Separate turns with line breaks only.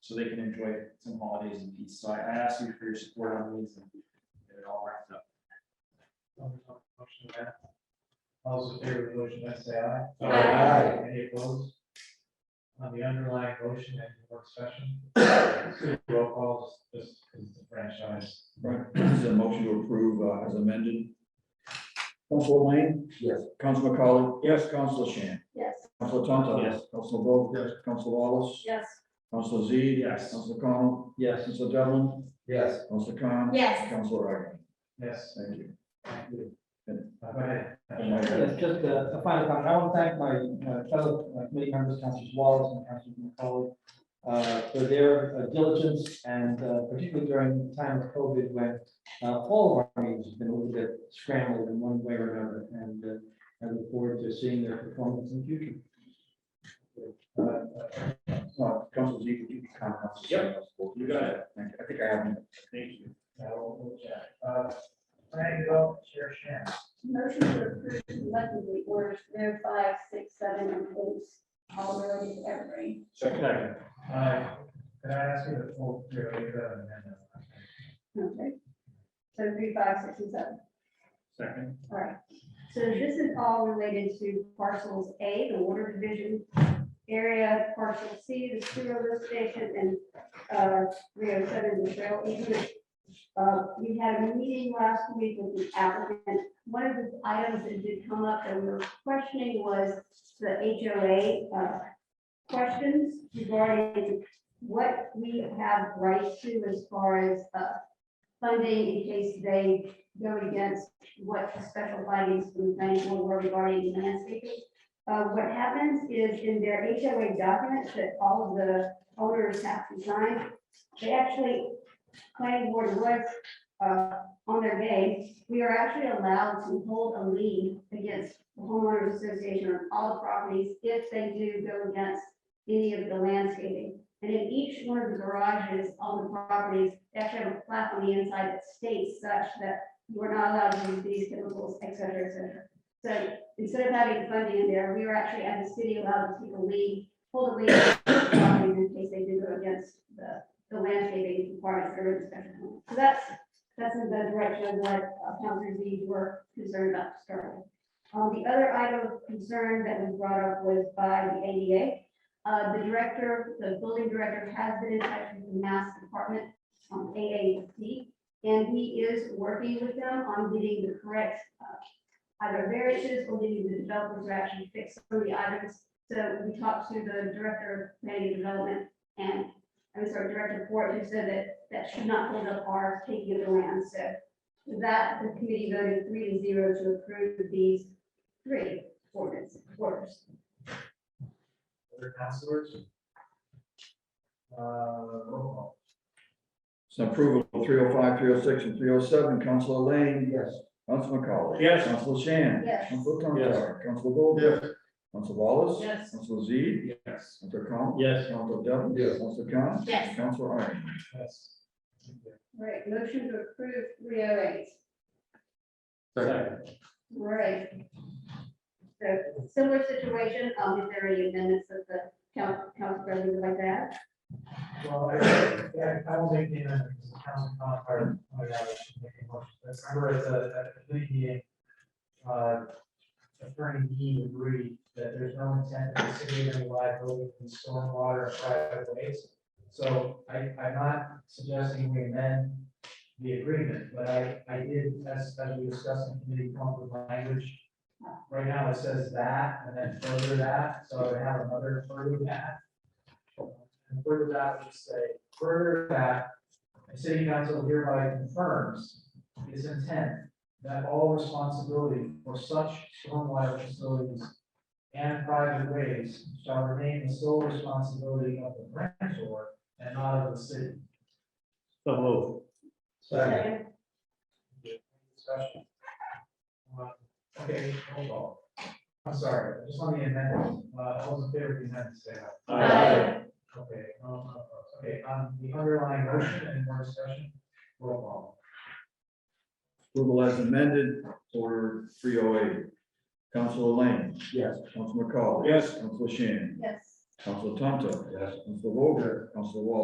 so they can enjoy some holidays in peace. So I, I ask you for your support on these and get it all wrapped up.
Motion to that. Also, in favor of the motion, let's say aye.
Aye. Aye.
Any opposed? On the underlying motion and work session, roll call, this is the franchise.
Right, is there a motion to approve uh, as amended? Council Lane? Yes. Council McCollum? Yes. Council Shan?
Yes.
Council Tonto?
Yes.
Council Vogt? Yes. Council Wallace?
Yes.
Council Z?
Yes.
Council Connell? Yes. Council Devlin? Yes. Council Con?
Yes.
Council Reagan?
Yes,
Thank you.
thank you.
Good.
Go ahead.
Yes, just a a final comment. I want to thank my uh, fellow uh, committee members, Councilors Wallace and Councilman McCollum, uh, for their uh, diligence and uh, particularly during the time of COVID when uh, all of our meetings have been a little bit scrambled in one way or another. And uh, I look forward to seeing their performance in the future.
Uh, uh, Council Z, could you comment?
Yep. You got it.
Thank you. I think I have.
Thank you.
Now, we'll move to, uh, Planning development, Chair Shan.
Motion to approve collectively orders zero five, six, seven, and eight, all related to every.
Second.
Aye. Could I ask you to pull your, your amendment?
Okay. So three, five, six, and seven.
Second.
All right. So this is all related to parcels A, the water division area, parcel C, the sewer lift station, and uh, 307, the trail easement. Uh, We had a meeting last week with the applicant. One of the items that did come up that we were questioning was the HOA uh, questions regarding what we have rights to as far as uh, funding in case they go against what the special findings from the planning board were regarding landscaping. Uh, what happens is in their HOA documents that all of the owners have to sign, they actually, planning board was, uh, on their day, we are actually allowed to hold a lien against the homeowners association on all properties if they do go against any of the landscaping. And in each one of the garages on the properties, they actually have a plaque on the inside that states such that we're not allowed to use these chemicals, et cetera, et cetera. So instead of having funding in there, we were actually as a city allowed to take a lead, hold a lead in case they do go against the, the landscaping requirements that are in the special permit. So that's, that's in the direction of what uh, Councilor Z were concerned about to start with. Um, the other item of concern that was brought up was by the ADA. Uh, the director, the building director has been in touch with the Mass Department, um, AAC, and he is working with them on getting the correct, uh, either variances or getting the developers to actually fix some of the items. So we talked to the director of planning and development and, I'm sorry, director of Ford, who said that that should not hold up our taking of the land. So that, the committee voted three to zero to approve these three ordinance, orders.
Other councilors? Uh, roll call.
So approval 305, 306, and 307. Council Lane?
Yes.
Council McCollum?
Yes.
Council Shan?
Yes.
Council
Yes.
Tonto? Council Vogt? Yes. Council Wallace?
Yes.
Council Z?
Yes.
Council Con?
Yes.
Council Devlin?
Yes.
Council Con?
Yes.
Council Iron?
Yes. Thank you.
Right, motion to approve three oh eight.
Second.
Right. So similar situation, um, if there are any amendments that the coun- council president would like that.
Well, I- yeah, I will make the amendment, because the council not part of that, I should make a motion. But Remember, at the, at the committee meeting, uh, Attorney Dean agreed that there's no intent to consider any liability from stormwater and private ways. So I, I'm not suggesting we amend the agreement, but I, I did, as, as we discussed in committee, come up with language. Right now, it says that, and then further that, so I would have another further that. And further that, would say, further that, the city council hereby confirms its intent that all responsibility for such stormwater facilities and private ways shall remain the sole responsibility of the grantor and not of the city.
So move.
Second.
Discussion. Uh, Okay, hold on. I'm sorry, just on the amendment, uh, all those in favor, please hand say aye.
Aye.
Okay, um, okay, on the underlying motion, any more discussion? Roll call.
Approval as amended, order three oh eight. Council Lane?
Yes.
Council McCollum?
Yes.
Council Shan?
Yes.
Council Tonto? Yes. Council Vogt? Council Wallace?